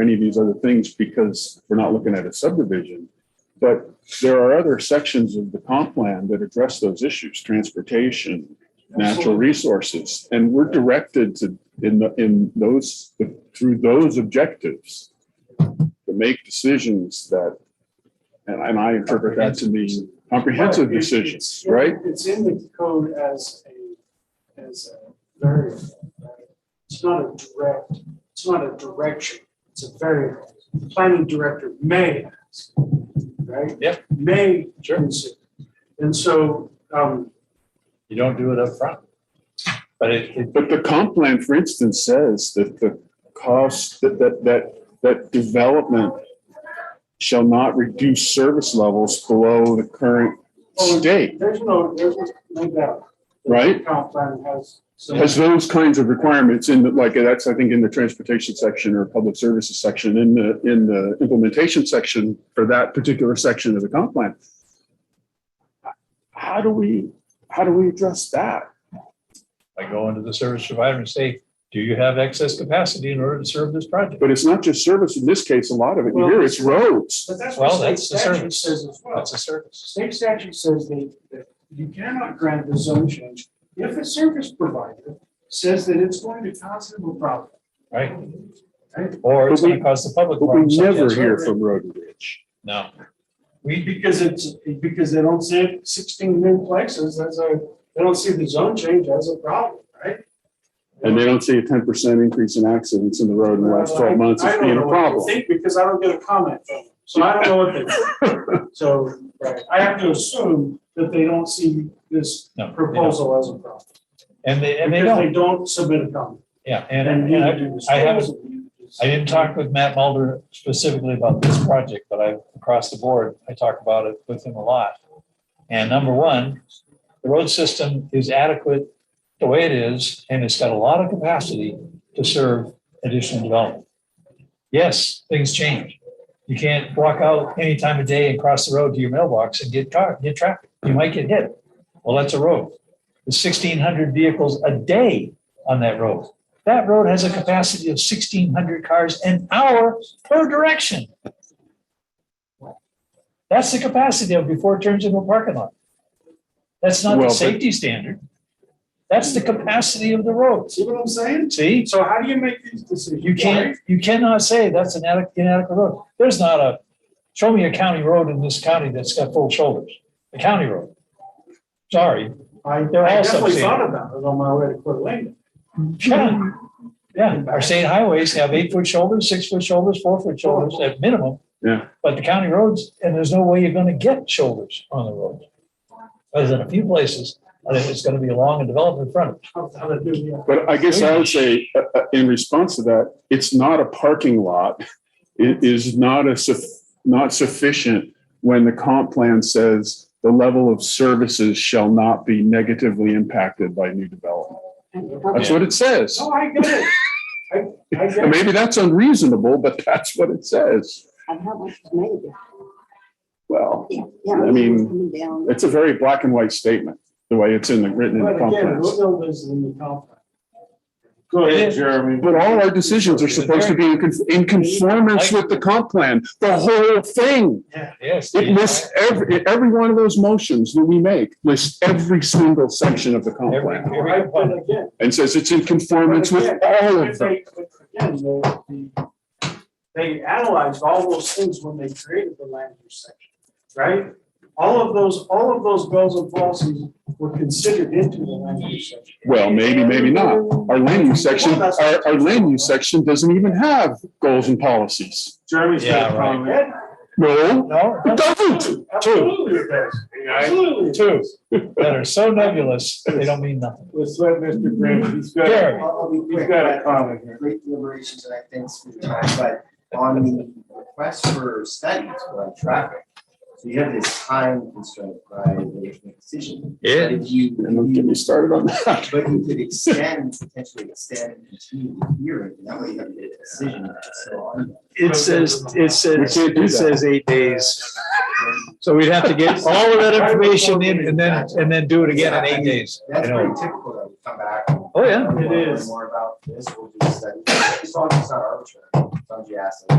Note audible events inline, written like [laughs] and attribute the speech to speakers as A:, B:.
A: any of these other things because we're not looking at a subdivision. But there are other sections of the comp plan that address those issues, transportation, natural resources. And we're directed to, in, the in those, through those objectives, to make decisions that, and I- and I interpret that to mean comprehensive
B: Right, it-
A: decisions,
B: it's-
A: right?
B: It's in the code as a, as a variable, right? It's not a direct, it's not a direction, it's a variable. The Planning director may ask, right?
C: Yep.
B: May
C: Sure.
B: consider. And so, um,
C: You don't do it up front, But it, it,
A: But the comp plan, for instance, says that the cost, that, that, that, that development shall not reduce service levels below the current state,
B: there's no, there's no doubt. that the
A: Right.
B: Comp plan has. some-
A: has those kinds of requirements in, the like, that's, I think, in the transportation section or public services section, in the, in the implementation section for that particular section of the comp plan. How do we, how do we address that?
C: I go into the service provider and say, do you have excess capacity in order to serve this project?
A: But it's not just service, in this case, a lot of it, here it's roads.
B: But that's
C: Well,
B: what state
C: that's the
B: statute
C: service.
B: says as well.
C: That's a service.
B: State statute says that, that you cannot grant the zone change if a service provider says that it's going to cause them a problem.
C: Right.
B: Right.
C: Or it's
A: But we-
C: gonna cause the public.
A: But we
C: harm, such
A: never
C: as-
A: hear from Road and Bridge.
C: No,
B: Because it's, because they don't see it sixteen new places, as a, they don't see the zone change as a problem, right?
A: And they don't see a ten percent increase in accidents in the road in the last twelve months
B: I
A: as
B: don't
A: being a
B: know what they
A: problem.
B: Think, because I don't get a comment from them, so I don't know what they
A: [laughs]
B: think. So, right, I have to assume that they don't see this
C: no. they don't.
B: proposal as a problem.
C: And they, and they
B: Because
C: don't,
B: They don't submit a comment.
C: yeah, and, and I, I haven't, I didn't talk with Matt Mulder specifically about this project, but I, across the board, I talk about it with him a lot. And number one, the road system is adequate the way it is, and it's got a lot of capacity to serve additional development. Yes, things change. You can't walk out any time of day and cross the road to your mailbox and get car, get traffic. You might get hit. Well, that's a road. There's sixteen hundred vehicles a day on that road. That road has a capacity of sixteen hundred cars an hour per direction. That's the capacity of before it turns into a parking lot. That's not
A: Well,
C: the
A: but-
C: safety standard. That's the capacity of the roads.
B: See what I'm saying?
C: See?
B: So how do you make these decisions?
C: You can't, you cannot say that's an adequate, inadequate road. There's not a, show me a county road in this county that's got full shoulders, a county road. Sorry.
B: I
C: They're all
B: I definitely
C: substandard.
B: thought about it on my way to Coeur d'Alene.
C: Yeah, yeah. Our state highways have eight foot shoulders, six foot shoulders, four foot shoulders at minimum.
A: Yeah.
C: But the county roads, and there's no way you're gonna get shoulders on the road. Other than a few places, and it's gonna be along and development frontage.
B: How- how to do it, yeah.
A: But I guess I would say, uh, uh, in response to that, it's not a parking lot. It is not a, suff- not sufficient when the comp plan says the level of services shall not be negatively impacted by new development. That's what it says.
B: No, I get it. I, I
A: And
B: get it.
A: [laughs] maybe that's unreasonable, but that's what it says.
D: And how much is made of it?
A: Well,
D: Yeah, yeah.
A: I mean,
D: Coming down.
A: it's a very black and white statement, the way it's in the, written [laughs] in the
B: But
A: comp plan.
B: again, Woodville is in the complex.
E: Go
C: ahead,
E: Jeremy.
A: But all our decisions are supposed to be in con- in conformance with the comp plan, the whole thing.
C: Yes.
A: It lists every, every one of those motions that we make, lists every single section of the comp
C: Every,
A: plan
C: every
B: Right,
C: component.
B: but again,
A: and says it's in conformance with all
B: if
A: of them.
B: they, again, the, the, they analyzed all those things when they created the land use section, right? All of those, all of those goals and policies were considered into the land use section.
A: Well, maybe, maybe not. Our land use section, our, our land use section doesn't even have goals and policies.
E: Jeremy's
C: Yeah,
E: got a
C: right.
E: problem.
B: Yeah,
A: No,
C: No,
A: it doesn't.
B: Absolutely it does. Absolutely. it
C: two
B: does.
C: that are so nebulous, they don't mean nothing.
E: Let's let Mr. Graham, he's got,
C: Jeremy.
E: he's got a comment here.
F: Great deliberations and I thanks for your time, but on the request for studies on traffic. So you have this time constraint by the making of decision. But If you,
A: And don't get me started on that.
F: but you could extend, potentially extend and continue the hearing, and that way you have a decision. So on.
G: It says, it says,
A: We can't do
G: it
A: that.
G: says eight days. So we'd have to get all of that information in and then, and then do it again in eight days.
F: That's
C: I know.
F: pretty typical that we come back. and-
G: Oh, yeah.
F: We wanna
B: It
F: learn
B: is.
F: More about this, we'll do studies, as long as it's not arbitrary, as long as you ask. them.